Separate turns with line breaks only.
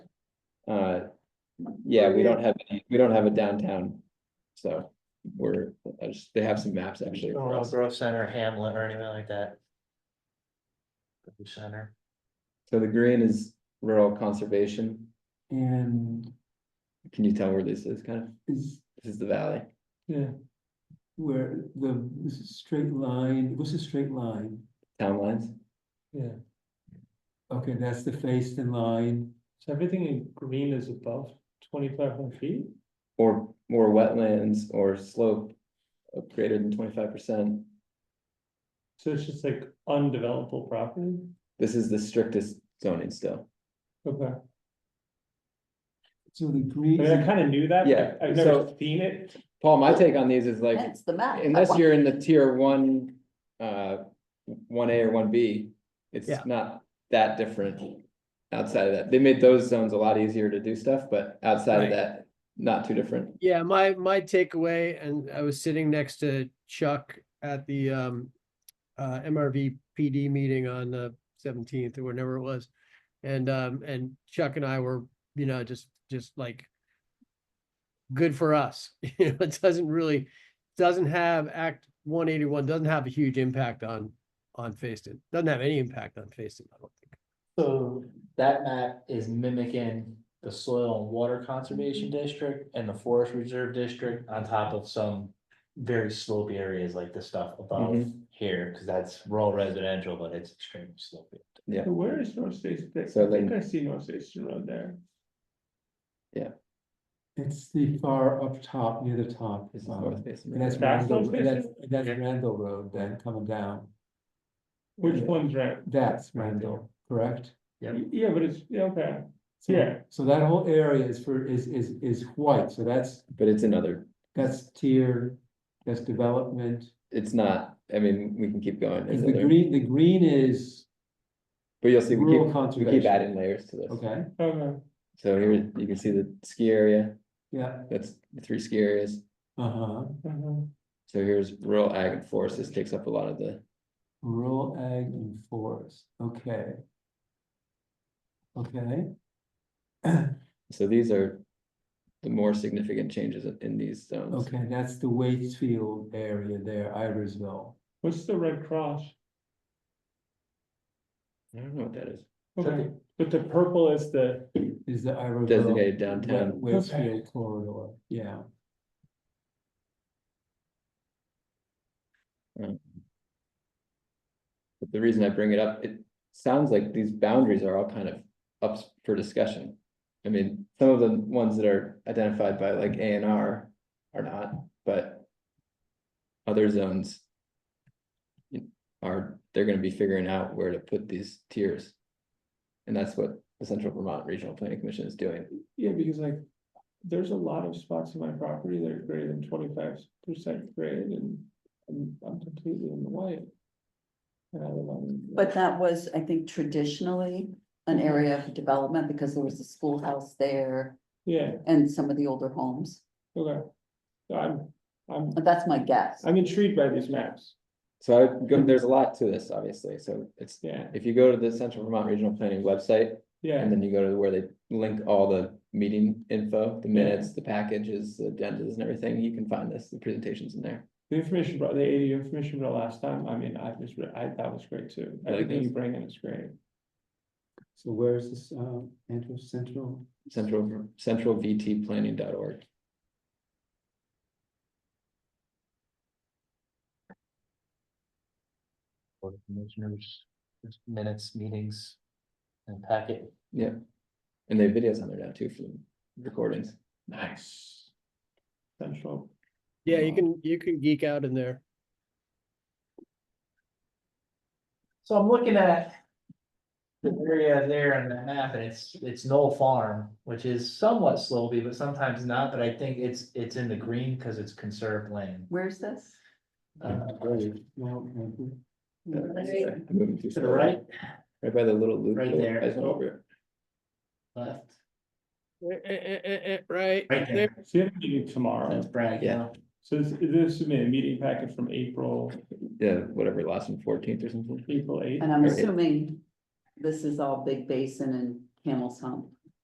Uh, Yeah, we don't have, any we don't have a downtown. So we're, I just- they have some maps actually. for
Laurel
us.
Grove Center, Hamlet, or anything like that. Grove Center,
So the green is rural conservation.
And
Can you tell where this is kind of?
is
This is the valley.
the, where the this is straight line, what's a straight line?
Town lines.
Yeah. Okay, that's the faced in line. So everything in green is above twenty-five hundred feet?
Or more wetlands or slope of greater than twenty-five percent.
So it's just like undevelopable property?
This is the strictest zoning still.
Okay. So the green.
I mean, I kinda knew that,
Yeah,
but I've
so-
never seen it.
Paul, my take on these is like,
That's the map.
unless you're in the tier one, uh, one A or one B, it's
Yeah.
not that different. Outside of that, they made those zones a lot easier to do stuff, but outside of
Right.
that, not too different.
Yeah, my my takeaway, and I was sitting next to Chuck at the um uh MRV PD meeting on the seventeenth or whenever it was. And um and Chuck and I were, you know, just just like good for us. You know, it doesn't really doesn't have Act one eighty one doesn't have a huge impact on on Facein. Doesn't have any impact on Facein, I don't think.
so that map is mimicking the soil and water conservation district and the forest reserve district on top of some. Very slopey areas like the stuff above here, cause that's rural residential, but it's extremely slopey.
Where is North Station?
So like-
I see North Station Road there.
Yeah.
It's the far up top, near the top.
This is
um,
north facing.
And that's
right?
That's
Randall,
North
and that's,
Station?
and that's
Yeah.
Randall Road then coming down.
Which
Yeah.
one's right?
That's Randall, correct?
Yeah, but it's, yeah, okay.
So-
Yeah.
So that whole area is for, is, is, is white, so that's,
But it's another,
that's tier, that's development.
it's not, I mean, we can keep going. There's
And the
other-
green, the green is
But you'll see, we
rural
keep, we keep
conservation,
adding layers to this.
okay,
Okay.
So here, you can see the ski area,
yeah,
that's the three ski areas.
uh-huh,
mhm.
So here's rural ag and forest, this takes up a lot of the,
rural ag and forest, okay. Okay.
so these are. The more significant changes in- in these zones,
Okay, that's the Waitsfield area there, Iversville.
What's the red cross?
I don't know what that is,
Okay, but the purple is the,
Is the Iversville.
designated downtown,
Wa-
Okay.
Waitsfield corridor, yeah.
but the reason I bring it up, it sounds like these boundaries are all kind of up for discussion. I mean, some of the ones that are identified by like A and R are not, but. Other zones. Are, they're gonna be figuring out where to put these tiers. And that's what the Central Vermont Regional Planning Commission is doing.
yeah, because like, there's a lot of spots in my property that are greater than twenty-five percent grade and I'm, I'm completely in the white. And I live on-
But that was, I think, traditionally an
Mm-hmm.
area of development because there was a schoolhouse there
Yeah,
and some of the older homes.
okay. So I'm, I'm,
But That's my guess.
I'm intrigued by these maps,
So I, would go- there's a lot to this, obviously, so it's,
yeah,
if you go to the Central Vermont Regional Planning website,
yeah.
and then you go to where they link all the meeting info, the minutes, the packages, the agendas and everything, you can find this, the presentations in there.
The information brought, the ADU information brought last time, I mean, I just, re- I, that was great too.
Like
Everything you
this?
bring in is great.
So where's this, um, Andrew Central?
Central, centralvtplanning.org.
Board of Commissioners, there's minutes, meetings, and packet.
Yeah. And they have videos on there now too for the recordings.
Nice. Central.
Yeah, you
Wow.
can you can geek out in there.
So I'm looking at. The area there on the map, and it's, it's Knoll Farm, which is somewhat slopey, but sometimes not, but I think it's, it's in the green, cause it's conserved land.
Where's this?
Uh,
No, Andrew.
Sorry, I'm moving too
To the
slow.
right,
Right by the little loop.
Right there.
I just went over it.
left,
Eh, eh, eh, eh, eh, right
right
there.
there,
So you have a meeting tomorrow.
that's Bragg
Yeah.
Hill.
So this, this is a meeting packet from April,
Yeah, whatever, last one, fourteenth or something.
April eighth.
And I'm
Right.
assuming this is all Big Basin and Camel's Hump.